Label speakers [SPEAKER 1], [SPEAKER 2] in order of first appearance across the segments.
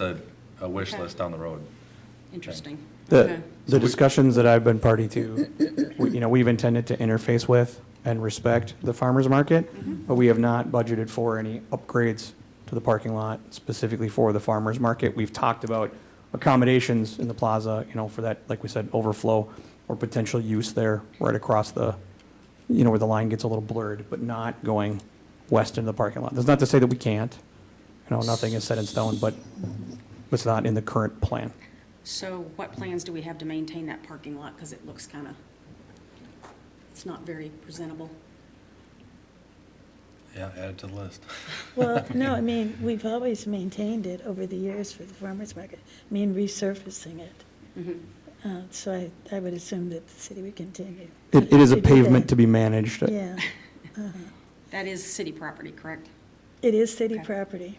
[SPEAKER 1] It's a, a wish
[SPEAKER 2] Okay.
[SPEAKER 1] list down the road.
[SPEAKER 2] Interesting. Okay.
[SPEAKER 3] The, the discussions that I've been party to, we- you know, we've intended to interface with and respect the farmer's market, but we have not budgeted for any upgrades to the parking lot specifically for the farmer's market. We've talked about accommodations in the plaza, you know, for that, like we said, overflow or potential use there right across the, you know, where the line gets a little blurred, but not going west into the parking lot. That's not to say that we can't, you know, nothing is set in stone, but it's not in the current plan.
[SPEAKER 2] So what plans do we have to maintain that parking lot? Because it looks kind of, it's not very presentable.
[SPEAKER 1] Yeah, add it to the list.
[SPEAKER 4] Well, no, I mean, we've always maintained it over the years for the farmer's market, I mean, resurfacing it.
[SPEAKER 2] Mm-hmm.
[SPEAKER 4] Uh, So I, I would assume that the city would continue.
[SPEAKER 3] It, it is a
[SPEAKER 4] to do
[SPEAKER 3] pavement
[SPEAKER 4] that.
[SPEAKER 3] to be managed.
[SPEAKER 4] Yeah, Uh-huh.
[SPEAKER 2] That is city property, correct?
[SPEAKER 4] it is city
[SPEAKER 2] Okay.
[SPEAKER 4] property.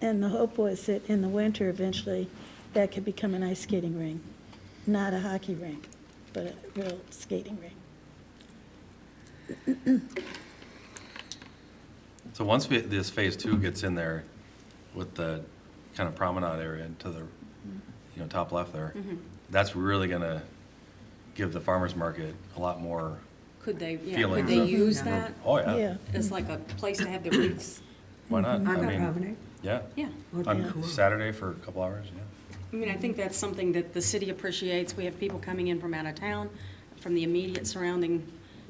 [SPEAKER 4] And the hope was that in the winter, eventually, that could become an ice skating rink, not a hockey rink, but a real skating rink.
[SPEAKER 1] So once we, this phase two gets in there with the kind of promenade area to the, you know, top left there, that's really gonna give the farmer's market a lot more,
[SPEAKER 2] Could they, yeah,
[SPEAKER 1] Feeling
[SPEAKER 2] could they
[SPEAKER 1] of-
[SPEAKER 2] use that
[SPEAKER 1] oh
[SPEAKER 4] Yeah.
[SPEAKER 1] yeah,
[SPEAKER 2] as like a place to have their booths?
[SPEAKER 1] why not? I
[SPEAKER 5] On that
[SPEAKER 1] mean,
[SPEAKER 5] avenue?
[SPEAKER 1] yeah,
[SPEAKER 2] Yeah.
[SPEAKER 5] Yeah.
[SPEAKER 1] on Saturday for a couple hours, yeah.
[SPEAKER 2] I mean, I think that's something that the city appreciates. We have people coming in from out of town, from the immediate surrounding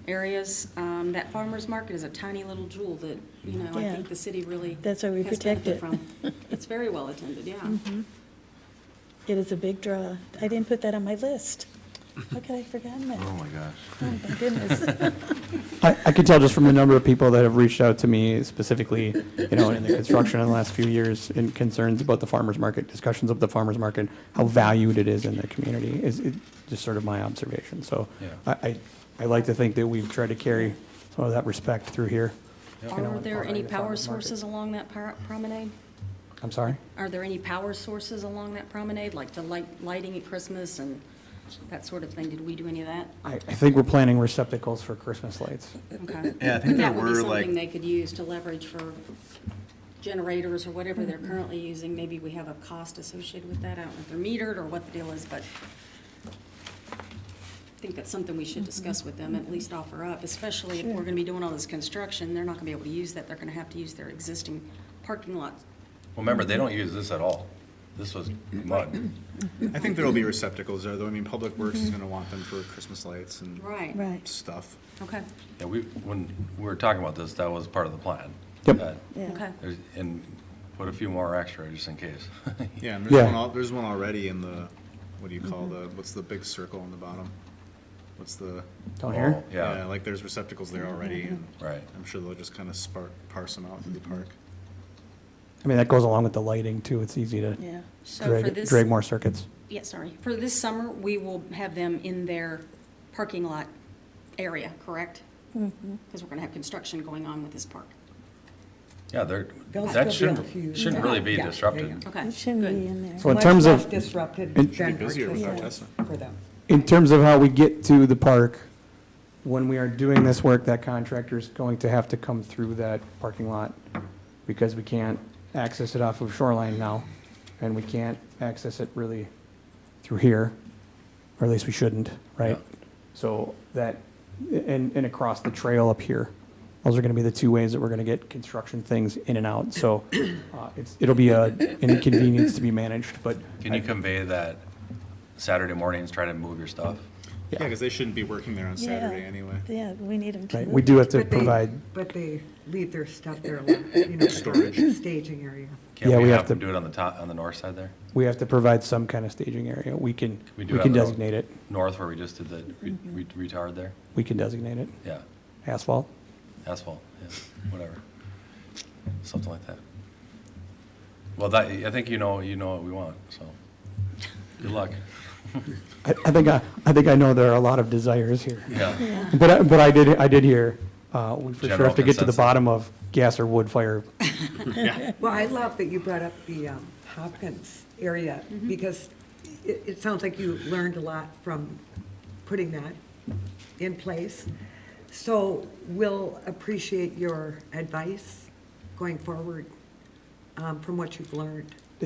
[SPEAKER 2] areas. Um, That farmer's market is a tiny little jewel that, you know, I
[SPEAKER 4] Yeah.
[SPEAKER 2] think the city really.
[SPEAKER 4] That's why we
[SPEAKER 2] has
[SPEAKER 4] protect
[SPEAKER 2] benefit
[SPEAKER 4] it. Mm-hmm.
[SPEAKER 2] from. It's very well attended, yeah.
[SPEAKER 4] It is a big draw. I didn't put that on my list. How could I have forgotten that?
[SPEAKER 1] Oh my gosh.
[SPEAKER 4] Oh, my goodness.
[SPEAKER 3] I, I could tell just from the number of people that have reached out to me specifically, you know, in the construction in the last few years and concerns about the farmer's market, discussions of the farmer's market, how valued it is in the community is it- just sort of my observation. So
[SPEAKER 1] Yeah.
[SPEAKER 3] I, I, I like to think that we've tried to carry some of that respect through here. You know,
[SPEAKER 2] Are
[SPEAKER 3] and
[SPEAKER 2] there any
[SPEAKER 3] following the
[SPEAKER 2] power
[SPEAKER 3] farmer's market.
[SPEAKER 2] sources along that par- promenade?
[SPEAKER 3] I'm sorry?
[SPEAKER 2] Are there any power sources along that promenade, like the light, lighting at Christmas and that sort of thing? Did we do any of that?
[SPEAKER 3] I, I think we're planning receptacles for Christmas lights.
[SPEAKER 2] Okay.
[SPEAKER 6] Uh, Yeah, I think there
[SPEAKER 2] That would be
[SPEAKER 6] were
[SPEAKER 2] something
[SPEAKER 6] like,
[SPEAKER 2] they could use to leverage for generators or whatever
[SPEAKER 6] Mm-hmm.
[SPEAKER 2] they're currently using. Maybe we have a cost associated with that. I don't know if they're metered or what the deal is, but I think that's something we
[SPEAKER 6] Mm-hmm.
[SPEAKER 2] should discuss with them, at least offer up, especially if we're gonna be doing all this construction. They're not gonna be able to use that. They're gonna have to use their existing parking lot.
[SPEAKER 1] Well, Remember, they don't use this at all. This was mud.
[SPEAKER 6] I think there'll be receptacles there, though. I mean, Public Works is gonna want them for Christmas lights and
[SPEAKER 2] Right.
[SPEAKER 4] Right,
[SPEAKER 6] stuff.
[SPEAKER 2] Okay,
[SPEAKER 1] Yeah, we, when we were talking about this, that was part of the plan.
[SPEAKER 3] Yep.
[SPEAKER 1] That-
[SPEAKER 4] yeah.
[SPEAKER 2] okay.
[SPEAKER 1] there's- And put a few more extra just in case.
[SPEAKER 6] Yeah, and there's
[SPEAKER 3] Yeah.
[SPEAKER 6] one, al- there's one already in the, what do you call the, what's the big circle on the bottom? What's the,
[SPEAKER 3] Down here?
[SPEAKER 1] Oh, Yeah,
[SPEAKER 6] like there's receptacles there already, and
[SPEAKER 1] right.
[SPEAKER 6] I'm sure they'll just kind of spark, parse them out through the park.
[SPEAKER 3] I mean, that goes along with the lighting too. It's easy to
[SPEAKER 4] Yeah.
[SPEAKER 2] So for
[SPEAKER 3] drag,
[SPEAKER 2] this-
[SPEAKER 3] drag more circuits.
[SPEAKER 2] Yeah, sorry. For this summer, we will have them in their parking lot area, correct?
[SPEAKER 4] Mm-hmm.
[SPEAKER 2] Because we're going to have construction going on with this park.
[SPEAKER 1] Yeah, they're,
[SPEAKER 5] They'll still be
[SPEAKER 1] that shouldn't,
[SPEAKER 5] out here.
[SPEAKER 1] shouldn't really be
[SPEAKER 2] Yeah, yeah,
[SPEAKER 1] disrupted.
[SPEAKER 2] Okay.
[SPEAKER 4] It shouldn't
[SPEAKER 2] good.
[SPEAKER 4] be in there.
[SPEAKER 3] So in
[SPEAKER 5] Much
[SPEAKER 3] terms
[SPEAKER 5] less
[SPEAKER 3] of,
[SPEAKER 5] Disrupted
[SPEAKER 3] It'd be
[SPEAKER 6] busier
[SPEAKER 5] generally
[SPEAKER 6] without
[SPEAKER 5] for
[SPEAKER 6] Tesla.
[SPEAKER 5] for them.
[SPEAKER 3] in terms of how we get to the park, when we are doing this work, that contractor's going to have to come through that parking lot because we can't access it off of Shoreline now, and we can't access it really through here, or at least we shouldn't, right? So that, and, and across the trail up here, those are gonna be the two ways that we're gonna get construction things in and out. So, uh, it's, it'll be a an inconvenience to be managed, but
[SPEAKER 1] Can you convey that Saturday mornings, try to move your stuff?
[SPEAKER 6] Yeah, because they shouldn't be working there on
[SPEAKER 4] Yeah.
[SPEAKER 6] Saturday anyway.
[SPEAKER 4] Yeah, we need them to.
[SPEAKER 3] Right,
[SPEAKER 4] move.
[SPEAKER 3] we do have to
[SPEAKER 5] But they-
[SPEAKER 3] provide,
[SPEAKER 5] But they leave their stuff there, like, you know,
[SPEAKER 6] Storage.
[SPEAKER 5] staging area.
[SPEAKER 3] Yeah,
[SPEAKER 1] Can't we
[SPEAKER 3] we have
[SPEAKER 1] have them
[SPEAKER 3] to-
[SPEAKER 1] do it on the top, on the north side there?
[SPEAKER 3] we have to provide some kind of staging area. We can,
[SPEAKER 1] we
[SPEAKER 3] we
[SPEAKER 1] do it
[SPEAKER 3] can
[SPEAKER 1] on the road?
[SPEAKER 3] designate it.
[SPEAKER 1] North where we just did the re- re- retard there?
[SPEAKER 3] We can designate it.
[SPEAKER 1] Yeah,
[SPEAKER 3] Asphalt.
[SPEAKER 1] asphalt, yeah, whatever. Something like that. Well, that, I think you know, you know what we want, so good luck.
[SPEAKER 3] I, I think I, I think I know there are a lot of desires here.
[SPEAKER 1] Yeah,
[SPEAKER 3] But, I- but I did, I did hear, uh, we for sure
[SPEAKER 1] General
[SPEAKER 3] have to get to the
[SPEAKER 1] consensus.
[SPEAKER 3] bottom of gas or wood fire.
[SPEAKER 5] Well, I love that you brought up the um, Hopkins area, because it, it sounds like you learned a lot from putting that in place. So we'll appreciate your advice going forward um, from what you've learned.